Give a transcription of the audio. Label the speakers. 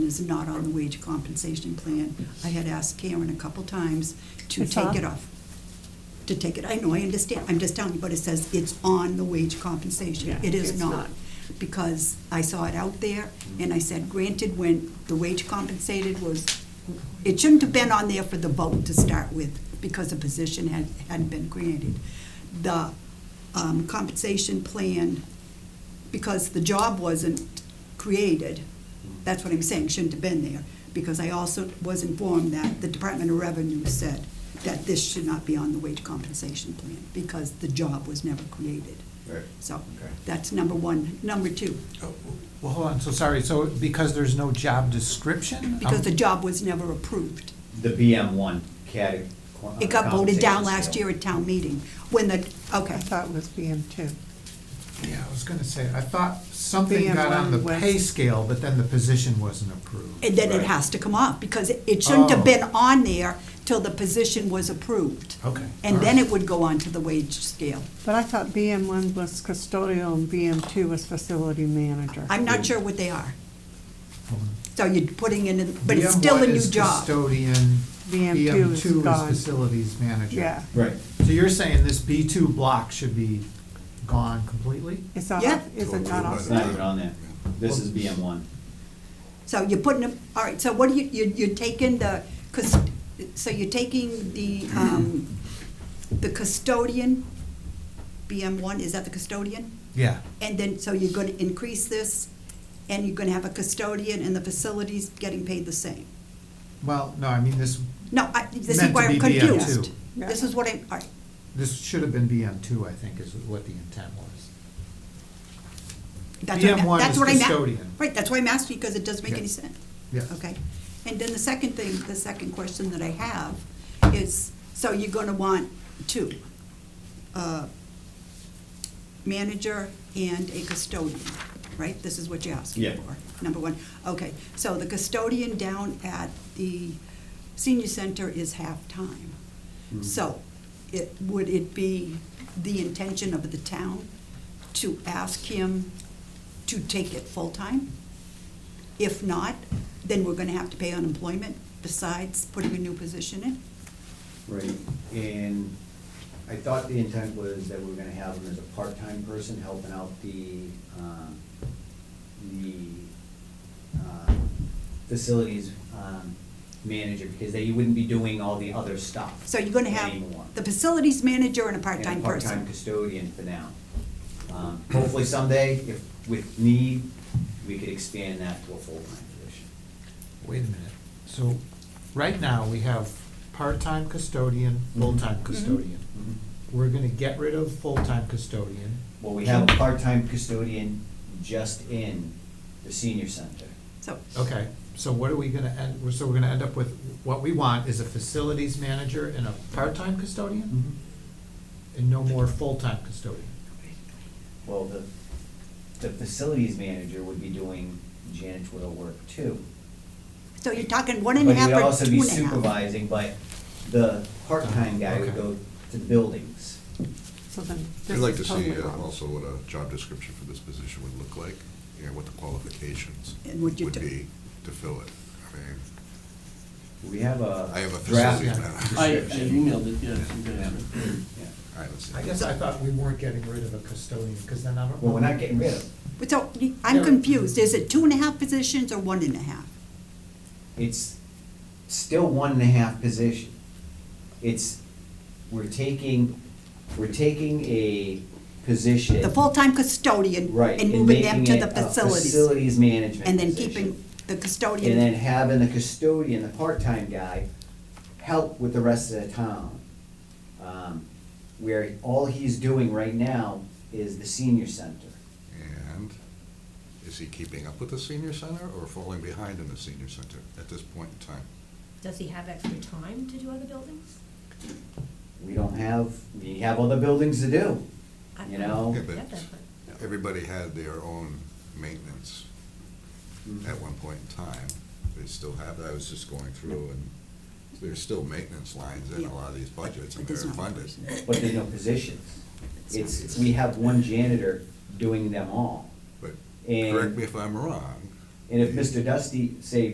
Speaker 1: is not on the wage compensation plan. I had asked Karen a couple times to
Speaker 2: It's
Speaker 1: take
Speaker 2: off.
Speaker 1: it off. To take it, I know, I understand, I'm just telling you, but it says it's on the wage compensation.
Speaker 2: Yeah,
Speaker 1: It is
Speaker 2: it's
Speaker 1: not.
Speaker 2: not.
Speaker 1: Because I saw it out there, and I said, granted, when the wage compensated was, it shouldn't have been on there for the vote to start with, because a position had, hadn't been created. The um, compensation plan because the job wasn't created, that's what I'm saying, shouldn't have been there, because I also was informed that the Department of Revenue said that this should not be on the wage compensation plan, because the job was never created.
Speaker 3: Right.
Speaker 1: So,
Speaker 3: Okay.
Speaker 1: that's number one. Number two,
Speaker 4: Well, hold on, so sorry, so because there's no job description?
Speaker 1: because
Speaker 4: um,
Speaker 1: the job was never approved.
Speaker 3: The BM one uh, category.
Speaker 1: It got voted down last year at town meeting, when the,
Speaker 2: I
Speaker 1: okay,
Speaker 2: thought it was BM two.
Speaker 4: Yeah, I was gonna say, I thought something got on
Speaker 2: BM1
Speaker 4: the
Speaker 2: was-
Speaker 4: pay scale, but then the position wasn't approved.
Speaker 1: and then it
Speaker 3: Right.
Speaker 1: has to come off, because it- it shouldn't have
Speaker 4: Oh.
Speaker 1: been on there till the position was approved.
Speaker 4: Okay.
Speaker 1: And
Speaker 4: all
Speaker 1: then
Speaker 4: right.
Speaker 1: it would go on to the wage scale.
Speaker 2: But I thought BM one was custodial and BM two was facility manager.
Speaker 1: I'm not sure what they are.
Speaker 4: Um,
Speaker 1: So you're putting in, but it's
Speaker 4: BM1
Speaker 1: still a new
Speaker 4: is
Speaker 1: job.
Speaker 4: Custodian,
Speaker 2: BM2
Speaker 4: BM
Speaker 2: is
Speaker 4: two is
Speaker 2: gone.
Speaker 4: facilities manager.
Speaker 2: Yeah,
Speaker 3: Right,
Speaker 4: So you're saying this B two block should be gone completely?
Speaker 2: it's not,
Speaker 1: Yeah.
Speaker 2: is it not
Speaker 3: it's
Speaker 2: off?
Speaker 3: not even on there. This is BM one.
Speaker 1: So you're putting them, all right, so what do you, you- you're taking the, cus- so you're taking the, um, the custodian, BM1, is that the custodian?
Speaker 4: Yeah.
Speaker 1: And then, so you're gonna increase this, and you're gonna have a custodian and the facilities getting paid the same?
Speaker 4: Well, no, I mean, this,
Speaker 1: No, I, this is
Speaker 4: Meant to
Speaker 1: why I'm
Speaker 4: be BM2.
Speaker 1: confused. This is what I'm, all right,
Speaker 4: this should have been BM two, I think, is what the intent was.
Speaker 1: that's what I'm,
Speaker 4: BM1
Speaker 1: that's
Speaker 4: is
Speaker 1: what I'm, a-
Speaker 4: custodian.
Speaker 1: right, that's why I'm asking, because it doesn't make
Speaker 4: Yeah.
Speaker 1: any sense.
Speaker 4: Yes.
Speaker 1: Okay, and then the second thing, the second question that I have is, so you're gonna want two, uh, manager and a custodian, right? This is what you're asking
Speaker 3: Yeah.
Speaker 1: for, number one. Okay, so the custodian down at the senior center is half-time.
Speaker 3: Mhm.
Speaker 1: So, it, would it be the intention of the town to ask him to take it full-time? If not, then we're gonna have to pay unemployment besides putting a new position in?
Speaker 3: Right, and I thought the intent was that we were gonna have him as a part-time person helping out the, um, the, uh, facilities, um, manager, because they wouldn't be doing all the other stuff.
Speaker 1: So you're gonna
Speaker 3: anymore.
Speaker 1: have the facilities manager and a
Speaker 3: and a
Speaker 1: part-time
Speaker 3: part-time
Speaker 1: person.
Speaker 3: custodian for now. Um, Hopefully someday, if with need, we could expand that to a full-time position.
Speaker 4: Wait a minute, so, right now, we have part-time custodian,
Speaker 3: Mm-hmm.
Speaker 4: full-time custodian.
Speaker 5: Mm-hmm.
Speaker 4: We're gonna get rid of full-time custodian.
Speaker 3: Well, we have a part-time custodian just in the senior center.
Speaker 1: So,
Speaker 4: Okay, so what are we gonna end, so we're gonna end up with, what we want is a facilities manager and a part-time
Speaker 5: Mm-hmm.
Speaker 4: custodian?
Speaker 3: Mm-hmm.
Speaker 4: And no more full-time custodian?
Speaker 3: Well, the, the facilities manager would be doing janitorial work too.
Speaker 1: so you're talking one and a half
Speaker 3: But he'd
Speaker 1: or
Speaker 3: also
Speaker 1: two
Speaker 3: be
Speaker 1: and a half?
Speaker 3: supervising, but the part-time guy would
Speaker 4: Okay.
Speaker 3: go to the buildings.
Speaker 2: So then this
Speaker 5: I'd like to
Speaker 2: is
Speaker 5: see
Speaker 2: totally
Speaker 5: uh,
Speaker 2: wrong.
Speaker 5: also what a job description for this position would look like, and what the qualifications
Speaker 1: And what
Speaker 5: would
Speaker 1: you do.
Speaker 5: be to fill it. I mean,
Speaker 3: We have a
Speaker 5: I have a
Speaker 3: draft
Speaker 5: facility manager.
Speaker 6: I, I
Speaker 3: description.
Speaker 6: emailed it, yes, you
Speaker 3: Yeah.
Speaker 6: guys.
Speaker 3: Yeah.
Speaker 5: all right, let's see.
Speaker 4: I guess I thought we weren't getting rid of a custodian, because then I don't.
Speaker 3: Well, we're not getting rid of it.
Speaker 1: So, you- I'm
Speaker 4: Yeah.
Speaker 1: confused, is it two and a half positions or one and a half?
Speaker 3: it's still one and a half position. It's, we're taking, we're taking a position.
Speaker 1: The full-time custodian
Speaker 3: Right.
Speaker 1: and moving them
Speaker 3: making
Speaker 1: to
Speaker 3: it
Speaker 1: the
Speaker 3: a
Speaker 1: facilities?
Speaker 3: Facilities management
Speaker 1: And then
Speaker 3: position.
Speaker 1: keeping the
Speaker 3: And then
Speaker 1: custodian,
Speaker 3: having the custodian, the part-time guy, help with the rest of the town. Um, Where all he's doing right now is the senior center.
Speaker 5: And is he keeping up with the senior center or falling behind in the senior center at this point in time?
Speaker 7: Does he have extra time to do other buildings?
Speaker 3: We don't have, we have other buildings to do,
Speaker 7: I-
Speaker 3: you know?
Speaker 5: Yeah, but-
Speaker 7: Get that, but-
Speaker 5: Everybody had their own maintenance
Speaker 4: Mm-hmm.
Speaker 5: at one point in time. They still have, I was just going through and there's still maintenance lines in a lot of these budgets
Speaker 1: but
Speaker 5: and they're
Speaker 1: there's not a
Speaker 5: funded.
Speaker 1: person.
Speaker 3: but there's no positions. It's, we have one janitor doing them all.
Speaker 5: But
Speaker 3: And-
Speaker 5: correct me if I'm wrong.
Speaker 3: And if
Speaker 5: the-
Speaker 3: Mr. Dusty, say,